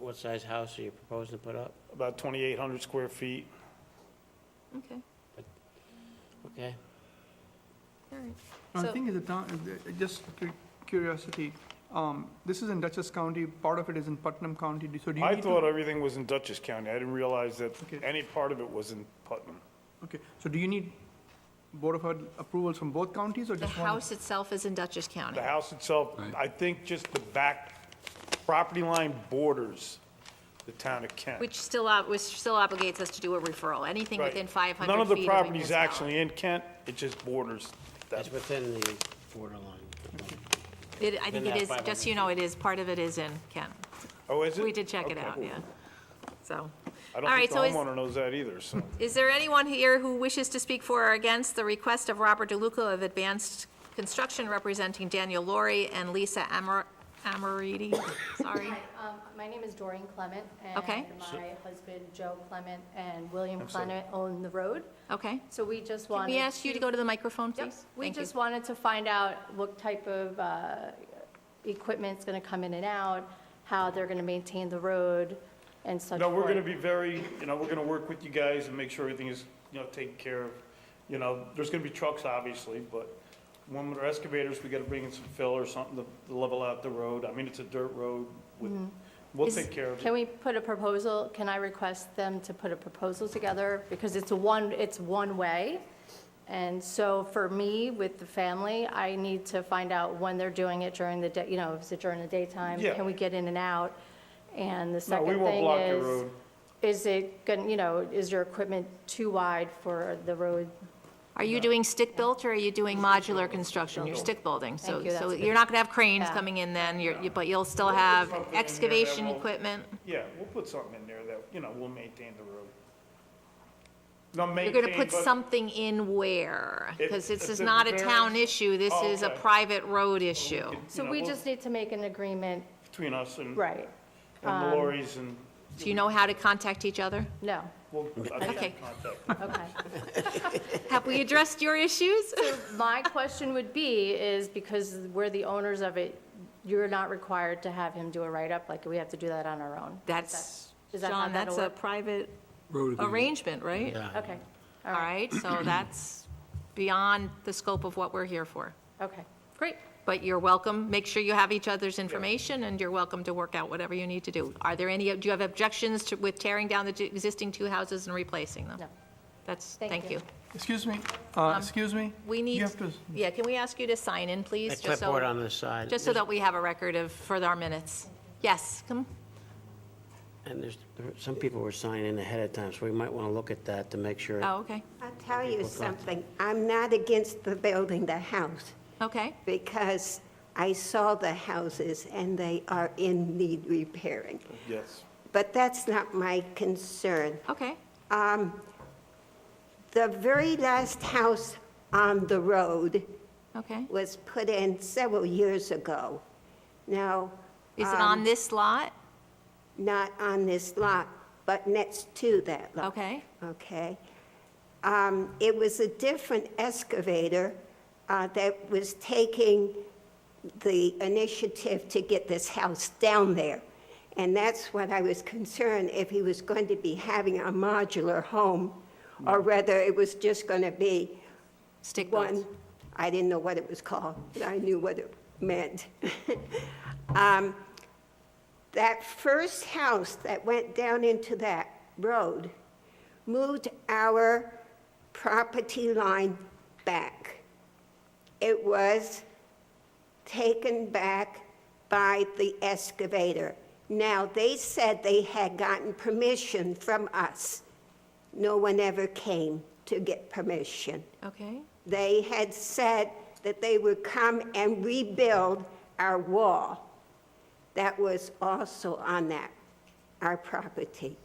what size house are you proposing to put up? about 2,800 square feet. Okay, Okay, all right. I So- think is the town, uh, just cu- curiosity, um, this is in Dutchess County, part of it is in Putnam County, do- so do you I need to- thought everything was in Dutchess County. I didn't realize that Okay. any part of it was in Putnam. Okay, so do you need Board of Health approvals from both counties or The just one? house itself is in Dutchess County. The house itself, I think just the back property line borders the town of Kent. Which still, ob- which still obligates us to do a referral, anything Right. within 500 feet. None of the a property's municipality. actually in Kent, it just borders that. that's within the borderline. It- I think Within it that is, 500 just so you know, it is, part of it is in Kent. Oh, is it? We did check it Okay. out, yeah. So, I all don't think right, the so is, homeowner knows that either, so. is there anyone here who wishes to speak for or against the request of Robert DeLuca of Advanced Construction representing Daniel Laurie and Lisa Amor- Amoriti? Sorry. Hi, um, my name is Doreen Clement. Okay. And my husband, Joe Clement, and William Clement own the road. Okay. So we just Can wanted we ask you to go to the microphone, Yep. please? We Thank you. just wanted to find out what type of uh, equipment's going to come in and out, how they're going to maintain the road and such. No, we're forth. gonna be very, you know, we're gonna work with you guys and make sure everything is, you know, taken care of. You know, there's gonna be trucks, obviously, but when with our excavators, we gotta bring in some fill or something to- to level out the road. I mean, it's a dirt road. with- We'll Mm-hmm. Is- take care of Can it. we put a proposal, can I request them to put a proposal together? Because it's a one, it's one way. And so for me, with the family, I need to find out when they're doing it during the day, you know, is it during the daytime? Yeah. Can we get in and out? And the No, second we thing won't is. block your road. Is it, gonna- you know, is your equipment too wide for the road? Are you doing stick-built, or are you doing modular construction? You're stick-building, so, Thank you, so that's you're not gonna have cranes Yeah. coming in then, you're, you- but you'll still have something in there that excavation will- equipment? Yeah, we'll put something in there that, you know, will maintain the road. No, You're maintain, gonna put but- something in where? It- Because this it's is a not a town very- issue, this Oh, is a okay. private road issue. you So know, we we'll- Hmm. just need to make an agreement, Between us and. right? um, And the lorries and, Do you know how to contact each other? No, we'll, I'll get Okay. in contact. okay. Have we addressed your issues? My question would be, is because we're the owners of it, you're not required to have him do a write-up, like, we have to do that on our own? That's, Is that how John, that's that'll a work? private Road agreement. arrangement, right? Okay, All right, so that's beyond the scope of what we're here for. okay. Great, but you're welcome, make sure you have each other's information, and you're welcome to work out whatever you need to do. Are there any, do you have objections to, with tearing down the two- existing two houses and replacing them? No. That's, Thank thank you. you. Excuse me, uh, excuse me? Um, We You need, have to- yeah, can we ask you to sign in, please? A just so- clipboard on the side. Just so that we have a record of, for our minutes. Yes, come, And there's, there- some people were signing ahead of time, so we might want to look at that to make sure. oh, okay, I'll tell you something, I'm not against the building the house, okay, because I saw the houses and they are in need repairing. Yes. But that's not my concern. okay, The very last house on the road okay. was put in several years ago. Now, um, Is it on this lot? not on this lot, but next to that lot. Okay. Okay. Um, It was a different excavator uh, that was taking the initiative to get this house down there. And that's what I was concerned, if he was going to be having a modular home, or whether it was just going to be Stick built. one, I didn't know what it was called, but I knew what it meant. Um, That first house that went down into that road moved our property line back. It was taken back by the excavator. Now, they said they had gotten permission from us. No one ever came to get permission. Okay, They had said that they would come and rebuild our wall that was also on that, our property.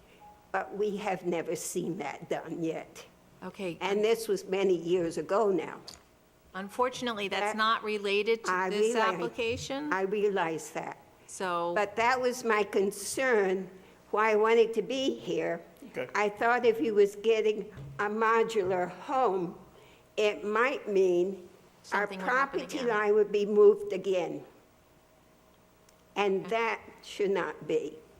But we have never seen that done yet. okay. And this was many years ago now. Unfortunately, that's I- not related to I this realize- application, I realize that. so. But that was my concern, why I wanted to be here. Okay. I thought if he was getting a modular home, it might mean our Something would happen property again. line would be moved again. And that should not be.